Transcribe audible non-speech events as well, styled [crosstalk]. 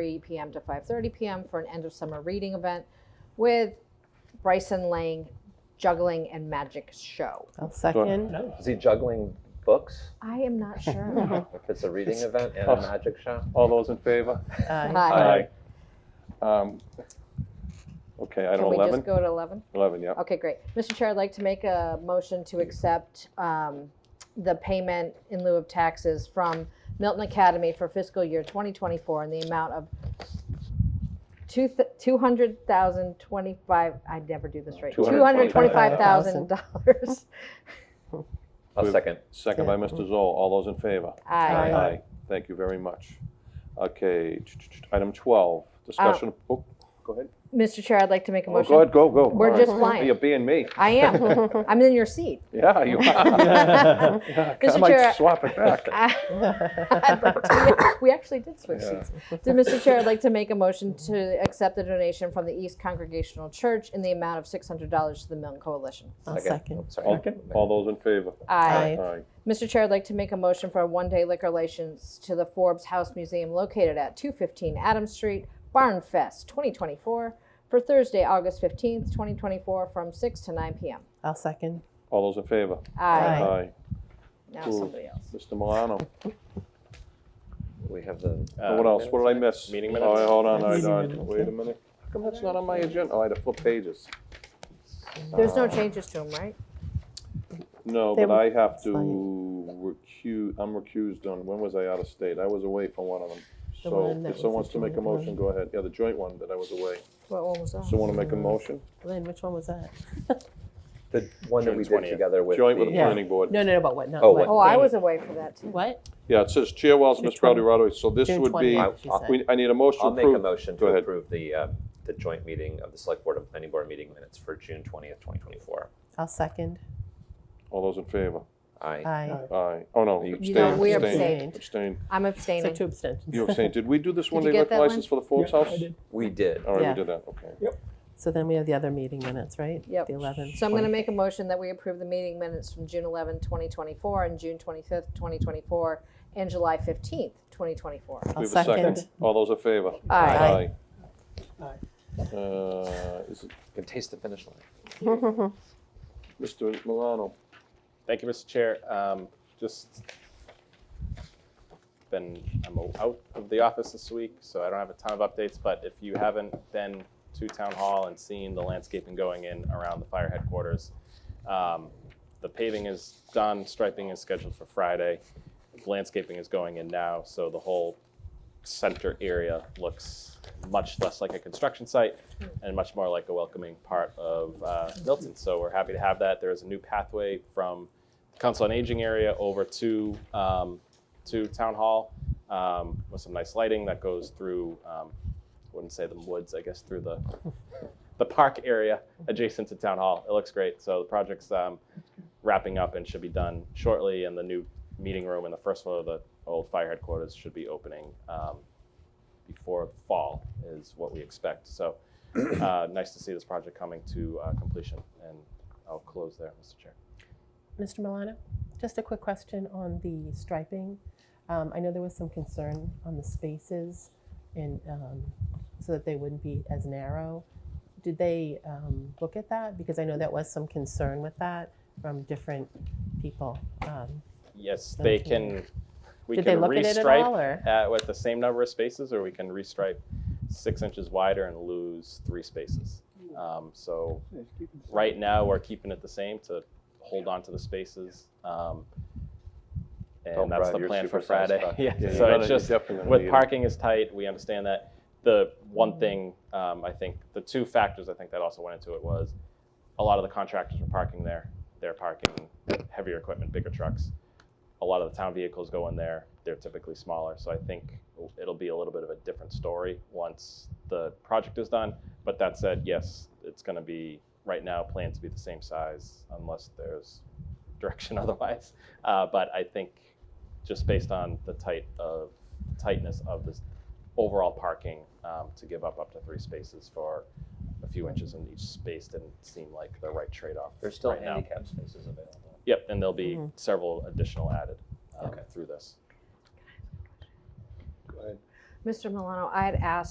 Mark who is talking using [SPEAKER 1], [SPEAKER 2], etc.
[SPEAKER 1] 3 p.m. to 5:30 p.m. for an end of summer reading event with Bryson Lang juggling and magic show.
[SPEAKER 2] I'll second.
[SPEAKER 3] Is he juggling books?
[SPEAKER 1] I am
[SPEAKER 4] [laughs]
[SPEAKER 1] not sure.
[SPEAKER 3] If it's a reading event and a magic show?
[SPEAKER 4] All those in favor?
[SPEAKER 2] Aye.
[SPEAKER 1] Hi.
[SPEAKER 4] Um, Okay, item
[SPEAKER 1] Can we just
[SPEAKER 4] 11?
[SPEAKER 1] go to 11?
[SPEAKER 4] 11, yeah.
[SPEAKER 1] Okay, great. Mr. Chair, I'd like to make a motion to accept um, the payment in lieu of taxes from Milton Academy for fiscal year 2024 in the amount of two th- $200,025, I never do this right,
[SPEAKER 2] $225,000.
[SPEAKER 1] $225,000.
[SPEAKER 3] A
[SPEAKER 4] We've-
[SPEAKER 3] second.
[SPEAKER 4] Second by Mr. Zoll. All those in favor?
[SPEAKER 1] Aye.
[SPEAKER 4] Aye. Thank you very much. Okay, ch- ch- ch- item 12, discussion, oh, go ahead.
[SPEAKER 1] Mr. Chair, I'd like to make a
[SPEAKER 4] Oh, Go
[SPEAKER 1] Ah. motion.
[SPEAKER 4] ahead, go, go.
[SPEAKER 1] We're
[SPEAKER 4] All
[SPEAKER 1] just
[SPEAKER 4] right.
[SPEAKER 1] flying.
[SPEAKER 4] You're being me.
[SPEAKER 1] I am. I'm in your seat. [laughs]
[SPEAKER 4] Yeah, you are. [laughs] Yeah, I
[SPEAKER 1] Mr. Chair-
[SPEAKER 4] might swap it back.
[SPEAKER 1] [laughs] I'd like to- We actually did switch seats. So, Mr. Chair, I'd like to make a motion to accept the donation from the East Congregational Church in the amount of $600 to the Milton Coalition.
[SPEAKER 2] I'll second.
[SPEAKER 3] Oh, Sorry.
[SPEAKER 4] All all those in favor?
[SPEAKER 1] Aye.
[SPEAKER 4] Aye.
[SPEAKER 1] Mr. Chair, I'd like to make a motion for a one-day liquor license to the Forbes House Museum located at 215 Adams Street, Barn Fest 2024, for Thursday, August 15th, 2024, from 6 to 9 p.m.
[SPEAKER 2] [laughs] I'll second.
[SPEAKER 4] All those in favor?
[SPEAKER 1] Aye.
[SPEAKER 2] Aye.
[SPEAKER 4] Aye.
[SPEAKER 1] Now
[SPEAKER 4] Cool.
[SPEAKER 1] somebody else.
[SPEAKER 4] Mr. Milano,
[SPEAKER 3] We have the.
[SPEAKER 4] Oh, what else? What did I miss?
[SPEAKER 3] meeting
[SPEAKER 4] Oh,
[SPEAKER 3] minutes?
[SPEAKER 4] hold on, I,
[SPEAKER 2] Meeting
[SPEAKER 4] I,
[SPEAKER 2] minutes,
[SPEAKER 4] wait a minute. How come that's not on my agenda? Oh, I had to flip pages.
[SPEAKER 1] There's
[SPEAKER 2] Uh,
[SPEAKER 1] no changes to them, right?
[SPEAKER 4] No,
[SPEAKER 2] They
[SPEAKER 4] but
[SPEAKER 2] were-
[SPEAKER 4] I have to
[SPEAKER 2] fine.
[SPEAKER 4] recuse, I'm recused on, when was I out of state? I was away for one of them.
[SPEAKER 2] The one
[SPEAKER 4] So
[SPEAKER 2] that
[SPEAKER 4] if
[SPEAKER 2] was
[SPEAKER 4] someone
[SPEAKER 2] the Oh.
[SPEAKER 4] wants to make a
[SPEAKER 2] joint one.
[SPEAKER 4] motion, go ahead. Yeah, the joint one that I was away.
[SPEAKER 1] What one was that?
[SPEAKER 4] Someone want to make a motion?
[SPEAKER 2] Lynn, which one was that?
[SPEAKER 3] The one that we
[SPEAKER 5] June
[SPEAKER 3] did
[SPEAKER 5] 20th.
[SPEAKER 3] together with.
[SPEAKER 4] Joint with the
[SPEAKER 2] Yeah.
[SPEAKER 4] planning board.
[SPEAKER 2] No, no, no, about what, not
[SPEAKER 3] Oh,
[SPEAKER 2] what.
[SPEAKER 1] Oh, I was away for that too.
[SPEAKER 2] What?
[SPEAKER 4] Yeah, it says Chair Wells,
[SPEAKER 2] June
[SPEAKER 4] Ms. Rowdy
[SPEAKER 2] 20th.
[SPEAKER 4] Rado, so this
[SPEAKER 2] June
[SPEAKER 4] would be, uh,
[SPEAKER 2] 20th, she said.
[SPEAKER 4] we- I need a motion to
[SPEAKER 3] I'll make a
[SPEAKER 4] approve.
[SPEAKER 3] motion
[SPEAKER 4] Go
[SPEAKER 3] to
[SPEAKER 4] ahead.
[SPEAKER 3] approve the, uh, the joint meeting of the select board and planning board meeting minutes for June twentieth, twenty twenty-four.
[SPEAKER 2] I'll second.
[SPEAKER 4] All those in favor?
[SPEAKER 3] Aye.
[SPEAKER 2] Aye.
[SPEAKER 4] Aye. Oh, no,
[SPEAKER 3] You-
[SPEAKER 4] abstain,
[SPEAKER 1] No, we
[SPEAKER 4] abstain,
[SPEAKER 2] abstained.
[SPEAKER 4] abstain.
[SPEAKER 1] I'm
[SPEAKER 2] So
[SPEAKER 1] abstaining.
[SPEAKER 2] two abstentions. [laughs]
[SPEAKER 4] You abstained. Did we do this one-day
[SPEAKER 1] get
[SPEAKER 4] liquor
[SPEAKER 1] that one?
[SPEAKER 4] license for the Forbes House?
[SPEAKER 3] We did. Oh,
[SPEAKER 4] All right,
[SPEAKER 2] Yeah.
[SPEAKER 4] we did that, okay.
[SPEAKER 2] So then we have the other meeting minutes, right?
[SPEAKER 1] Yep.
[SPEAKER 2] The 11th.
[SPEAKER 1] So I'm going to make a motion that we approve the meeting minutes from June 11, 2024, and June 25th, 2024, and July 15th, 2024.
[SPEAKER 2] I'll
[SPEAKER 4] We have a second.
[SPEAKER 2] second.
[SPEAKER 4] All those in favor?
[SPEAKER 1] Aye.
[SPEAKER 4] Aye. Uh, is it
[SPEAKER 3] Can taste the finish line.
[SPEAKER 2] [laughs]
[SPEAKER 4] Mr. Milano?
[SPEAKER 5] Thank you, Mr. Chair. Um, Just been, I'm out of the office this week, so I don't have a ton of updates, but if you haven't been to Town Hall and seen the landscaping going in around the fire headquarters, um, the paving is done, striping is scheduled for Friday, landscaping is going in now, so the whole center area looks much less like a construction site and much more like a welcoming part of uh, Milton. So we're happy to have that. There is a new pathway from the Council on Aging area over to um, to Town Hall um, with some nice lighting that goes through. Um, I wouldn't say the woods, I guess through the the park area adjacent to Town Hall. It looks great. So the project's um, wrapping up and should be done shortly. And the new meeting room and the first floor of the old fire headquarters should be opening um, before fall is what we expect. So uh, nice to see this project coming to uh, completion. And I'll close there, Mr. Chair.
[SPEAKER 2] Mr. Milano, just a quick question on the striping. Um, I know there was some concern on the spaces and, um, so that they wouldn't be as narrow. Did they, um, look at that? Because I know that was some concern with that from different people. Um,
[SPEAKER 5] Yes, they
[SPEAKER 2] Thank
[SPEAKER 5] can. We
[SPEAKER 2] Did they
[SPEAKER 5] can
[SPEAKER 2] look at it at
[SPEAKER 5] restripe
[SPEAKER 2] all or?
[SPEAKER 5] at, with the same number of spaces, or we can restripe six inches wider and lose three spaces. Um, so right now we're keeping it the same to hold on to the spaces. Um, and
[SPEAKER 4] Don't
[SPEAKER 5] that's
[SPEAKER 4] brag,
[SPEAKER 5] the
[SPEAKER 4] Oh, you're
[SPEAKER 5] plan for
[SPEAKER 4] supersized,
[SPEAKER 5] Friday. [laughs]
[SPEAKER 4] but-
[SPEAKER 5] yeah.
[SPEAKER 4] Yeah, you
[SPEAKER 5] So
[SPEAKER 4] gotta- you
[SPEAKER 5] it's just
[SPEAKER 4] definitely need
[SPEAKER 5] with
[SPEAKER 4] it.
[SPEAKER 5] parking is tight. We understand that. The one thing um, I think the two factors I think that also went into it was a lot of the contractors were parking there. They're parking heavier equipment, bigger trucks. A lot of the town vehicles go in there. They're typically smaller. So I think it'll be a little bit of a different story once the project is done. But that said, yes, it's going to be right now planned to be the same size unless there's [laughs] direction otherwise. Uh, but I think just based on the tight of tightness of this overall parking um, to give up up to three spaces for a few inches in each space didn't seem like the right trade-off
[SPEAKER 3] There's still Mm-hmm.
[SPEAKER 5] right now.
[SPEAKER 3] handicap spaces available.
[SPEAKER 5] Yep, and there'll be several additional added um,
[SPEAKER 3] Okay.
[SPEAKER 5] through this.
[SPEAKER 1] Mr. Milano, I had asked